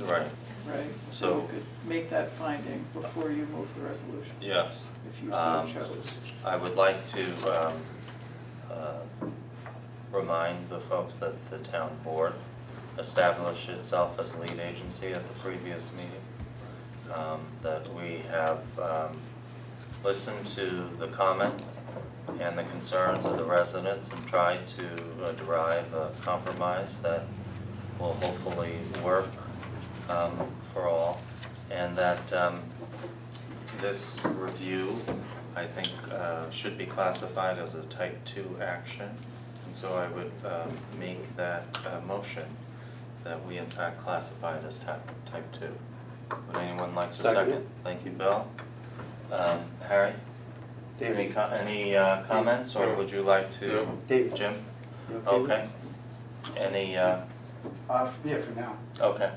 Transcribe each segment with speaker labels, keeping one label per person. Speaker 1: Right,
Speaker 2: right?
Speaker 1: So-
Speaker 2: You could make that finding before you move the resolution,
Speaker 1: yes.
Speaker 2: if you so
Speaker 1: Um,
Speaker 2: chose.
Speaker 1: I would like to um, uh, remind the folks that the town board established itself as lead agency at the previous meeting. Um, That we have um, listened to the comments and the concerns of the residents and tried to uh, derive a compromise that will hopefully work um, for all. And that um, this review, I think, uh, should be classified as a type two action. And so I would um, make that uh, motion that we in fact classify it as type, type two. Would anyone like to second?
Speaker 3: Second it.
Speaker 1: Thank you, Bill. Um, Harry?
Speaker 3: David.
Speaker 1: Any, co- any uh, comments, or would you like to?
Speaker 3: No. David.
Speaker 1: Jim?
Speaker 3: You okay with
Speaker 1: Okay. Any, uh,
Speaker 4: Uh, f- yeah, for now.
Speaker 1: okay.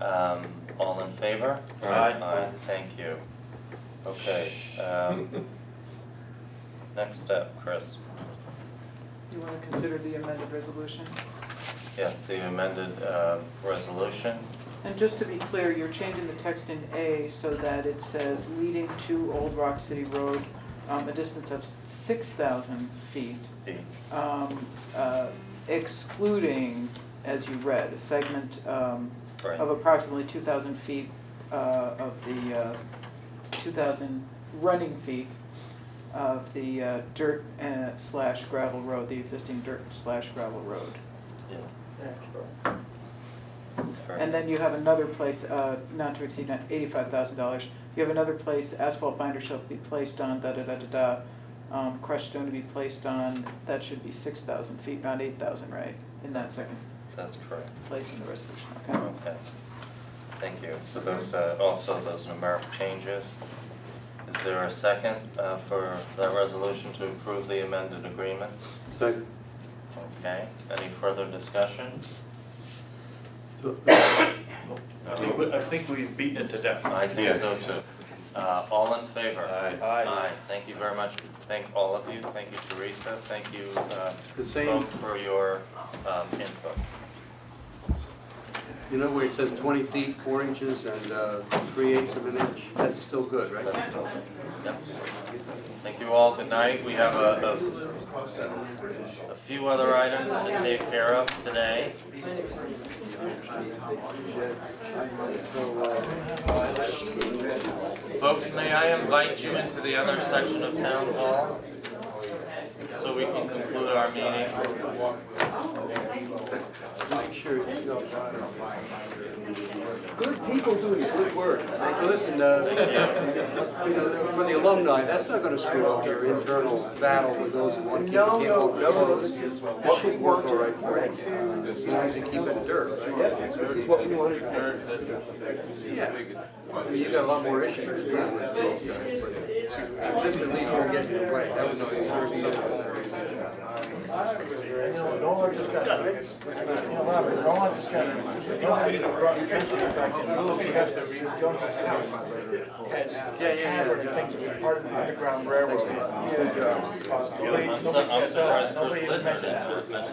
Speaker 1: Um, All in favor?
Speaker 3: Aye.
Speaker 1: Aye, thank you. Okay, um, Next step, Chris.
Speaker 2: You wanna consider the amended resolution?
Speaker 1: Yes, the amended uh, resolution.
Speaker 2: And just to be clear, you're changing the text in A so that it says leading to Old Rock City Road, um, a distance of six thousand feet,
Speaker 1: The-
Speaker 2: um, uh, excluding, as you read, a segment, um,
Speaker 1: Right.
Speaker 2: of approximately two thousand feet, uh, of the, uh, two thousand running feet of the, uh, dirt uh, slash gravel road, the existing dirt slash gravel road.
Speaker 1: yeah, it's very-
Speaker 2: And then you have another place, uh, not to exceed eighty-five thousand dollars. You have another place, asphalt binder shall be placed on, da-da-da-da-da, um, crushed stone to be placed on, that should be six thousand feet, not eight thousand, right? In that second
Speaker 1: That's correct.
Speaker 2: place in the resolution, okay?
Speaker 1: Okay. Thank you. So those, uh, also those numeric changes. Is there a second uh, for that resolution to approve the amended agreement?
Speaker 3: Second.
Speaker 1: Okay, any further discussion?
Speaker 3: So-
Speaker 5: I think, we- I think we've beaten it to death.
Speaker 1: I think so too. Uh, all in favor?
Speaker 3: Aye.
Speaker 5: Aye.
Speaker 1: Aye, thank you very much. Thank all of you, thank you Teresa, thank you, uh,
Speaker 3: The same-
Speaker 1: folks for your, um, input.
Speaker 3: You know where it says twenty feet, four inches, and uh, three eighths of an inch? That's still good, right?
Speaker 1: That's still, yep. Thank you all, good night. We have a, a, a few other items to take care of today. Folks, may I invite you into the other section of town hall? So we can conclude our meeting.
Speaker 3: Make sure it's still done. Good people doing good work. Like, Listen, uh, you know, for the alumni, that's not gonna screw up your internal battle with those who want to keep the
Speaker 4: No,
Speaker 3: camp
Speaker 4: no,
Speaker 3: open.
Speaker 4: no, no, this is
Speaker 3: That
Speaker 4: what we
Speaker 3: should work
Speaker 4: want
Speaker 3: all right
Speaker 4: to,
Speaker 3: for you, as long as you keep it dirt, right?
Speaker 4: yep, this is what we wanted to do.
Speaker 3: Yes. You got a lot more issues to deal with. This at least will get you away. That was no concern. Yeah, yeah, yeah, yeah.
Speaker 1: I'm su- I'm surprised Chris Littner didn't mention that.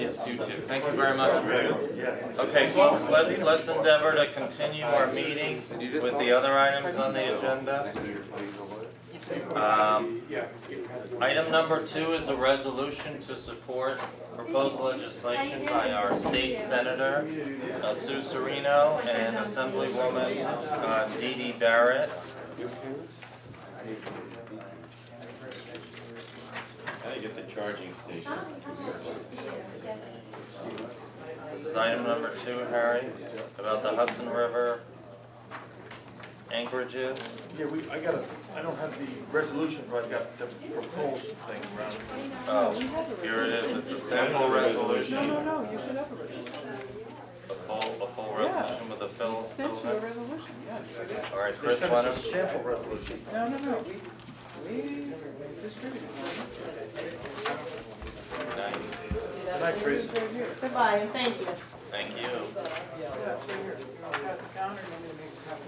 Speaker 1: Yes, you too. Thank you very much. Okay, folks, let's, let's endeavor to continue our meeting with the other items on the agenda. Um, Item number two is a resolution to support proposed legislation by our state senator, uh, Sue Serino, and Assemblywoman uh, Dee Dee Barrett. This is item number two, Harry, about the Hudson River anchorages.
Speaker 5: Yeah, we, I got a, I don't have the resolution, but I've got the proposed thing around it.
Speaker 1: Oh, here it is, it's a sample resolution,
Speaker 2: No, no, no, you should have a resolution.
Speaker 1: a full, a full
Speaker 2: Yeah.
Speaker 1: resolution with a fill,
Speaker 2: We sent you
Speaker 1: fill
Speaker 2: a
Speaker 1: in.
Speaker 2: resolution, yes.
Speaker 1: Alright,
Speaker 5: They
Speaker 1: Chris,
Speaker 5: sent
Speaker 1: why
Speaker 5: us a
Speaker 1: don't,
Speaker 5: sample resolution.
Speaker 2: No, no, no, we, we distributed it.
Speaker 1: nice,
Speaker 5: Good night, Teresa.
Speaker 2: It's right here.
Speaker 6: Goodbye, and thank you.
Speaker 1: thank you.
Speaker 2: Yeah, it's right here. I'll pass it down or you want me to make a copy?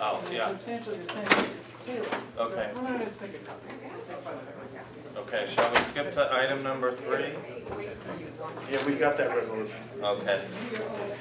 Speaker 1: Oh,
Speaker 2: It's
Speaker 1: yeah,
Speaker 2: substantially the same, it's tailored.
Speaker 1: Okay.
Speaker 2: Why don't I just make a copy? Take one second.
Speaker 1: okay, shall we skip to item number three?
Speaker 5: Yeah, we got that resolution.
Speaker 1: Okay.